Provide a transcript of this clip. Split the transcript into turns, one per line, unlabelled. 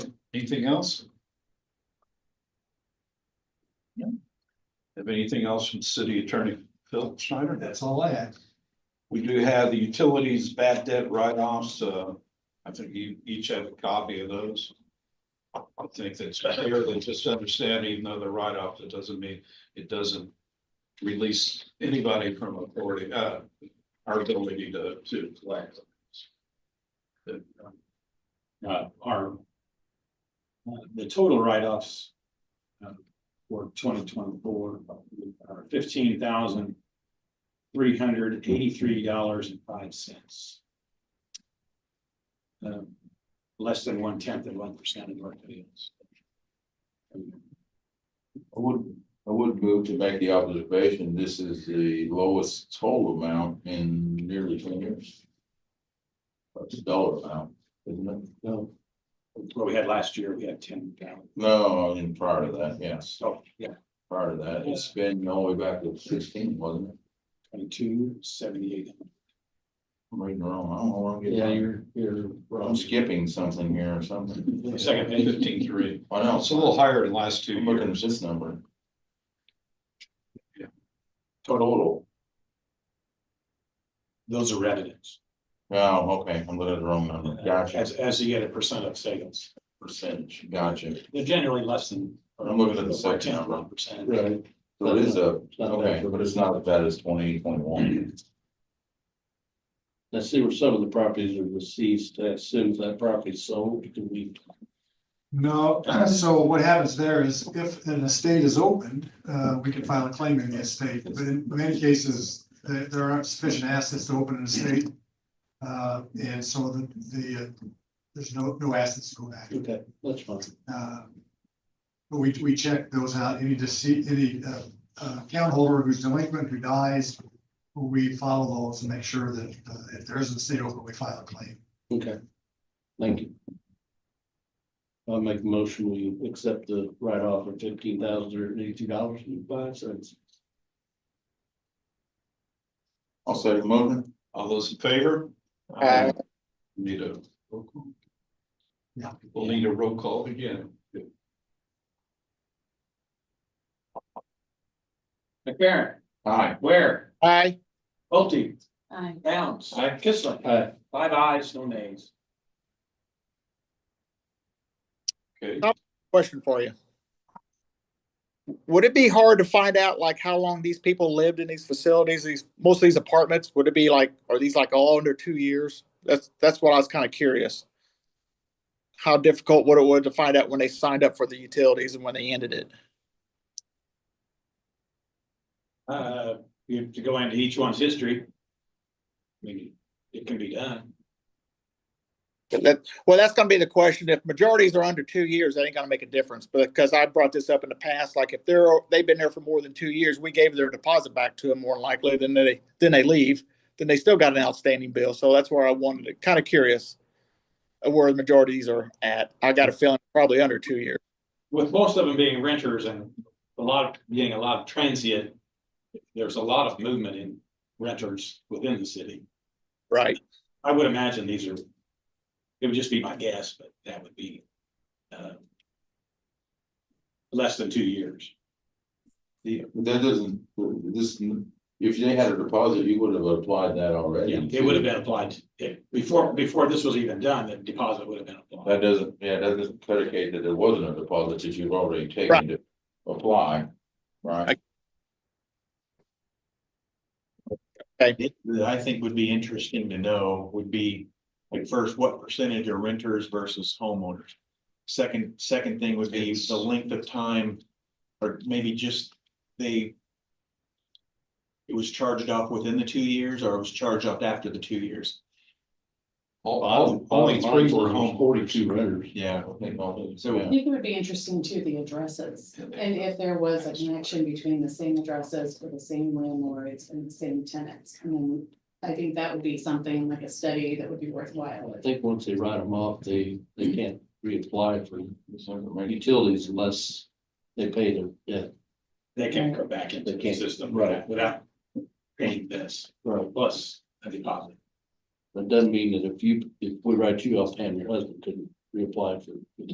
Anything else? Yeah. Have anything else from city attorney Phil Schneider?
That's all I had.
We do have the utilities bad debt write-offs, uh, I think you each have a copy of those. I think that's clear, they just understand even though they're write-off, it doesn't mean, it doesn't release anybody from authority, uh, our ability to, to collect. But, um,
uh, our. uh, The total write-offs. uh, For twenty twenty-four are fifteen thousand three hundred eighty-three dollars and five cents. Uh, Less than one tenth of one percent of our deals.
I would, I would move to make the observation, this is the lowest total amount in nearly ten years. That's a dollar amount, isn't it?
No. What we had last year, we had ten uh, thousand.
No, and prior to that, yes,
So, Oh, yeah,
prior to that, it's been all the way back to sixteen, wasn't it?
twenty-two, seventy-eight.
I'm reading wrong, I don't know where I'm getting.
you're.
I'm skipping something here or something.
Second page.
Fifteen three,
Why
Well,
not?
it's a little higher than last two
I'm looking
years.
at this number.
Yeah.
Total,
Those are revenues,
oh, okay, I'm looking at the wrong number, gotcha,
as, as you get a percent of sales.
percentage, gotcha.
They're generally less than.
I'm looking at the second
Ten,
number.
one percent.
Right,
So it is a,
not
okay,
bad.
but it's not as bad as twenty, twenty-one.
let's see where some of the properties are deceased,
uh,
as soon as that property's sold, you can leave.
No, so what happens there is if an estate is opened, uh, we can file a claim in the estate, but in many cases, there, there aren't sufficient assets to open an estate. Uh, and so the, the, uh, there's no, no assets to go back.
Okay, that's fine.
Uh, But we, we check those out, any deceit, any, uh, uh, account holder who's delinquent, who dies, we follow those and make sure that, uh, if there is an estate open, we file a claim.
Okay. Thank you. I'll make a motion, we accept the write-off of fifteen thousand or eighty-two dollars and five cents.
I'll say the motion.
All those in favor?
Aye.
Need a roll call?
Yeah.
We'll need a roll call again.
McFerrin,
Aye.
Ware,
Aye.
Bolte,
Aye.
Downs. Kissling. Five eyes, no nays.
Okay,
Question for you. Would it be hard to find out like how long these people lived in these facilities, these, most of these apartments? Would it be like, are these like all under two years? That's, that's what I was kind of curious. How difficult would it would to find out when they signed up for the utilities and when they ended it?
Uh, you have to go into each one's history. I mean, it can be done.
That, well, that's gonna be the question. If majorities are under two years, that ain't gonna make a difference, but, because I brought this up in the past, like if they're, they've been there for more than two years, we gave their deposit back to them more than likely, then they, then they leave. Then they still got an outstanding bill, so that's where I wanted to, kind of curious of where the majorities are at. I got a feeling probably under two years.
With most of them being renters and a lot of, being a lot of transient, there's a lot of movement in renters within the city.
Right.
I would imagine these are, it would just be my guess, but that would be uh, less than two years.
The- that doesn't, this, if they had a deposit, you would have applied that already.
It would have been applied, to- it- before, before this was even done, the deposit would have been applied.
That doesn't, yeah, that doesn't predicate that there wasn't a deposit that you've already taken
Right.
to apply, right?
that I think would be interesting to know would be, like, first, what percentage are renters versus homeowners? Second, second thing would be the length of time, or maybe just they. It was charged off within the two years, or it was charged off after the two years,
all- all- only three were home.
Forty-two renters.
yeah.
I think all-
So-
I
yeah.
think it would be interesting too, the addresses, and if there was a connection between the same addresses for the same landlords and the same tenants. I mean, I think that would be something like a study that would be worthwhile.
I think once they write them off, they, they can't reapply for utilities unless they pay their debt.
They can't go back into
They
the
can't,
system
right.
without paying this
Right.
plus a deposit.
That doesn't mean that if you, if we write you off, Pam, your husband couldn't reapply for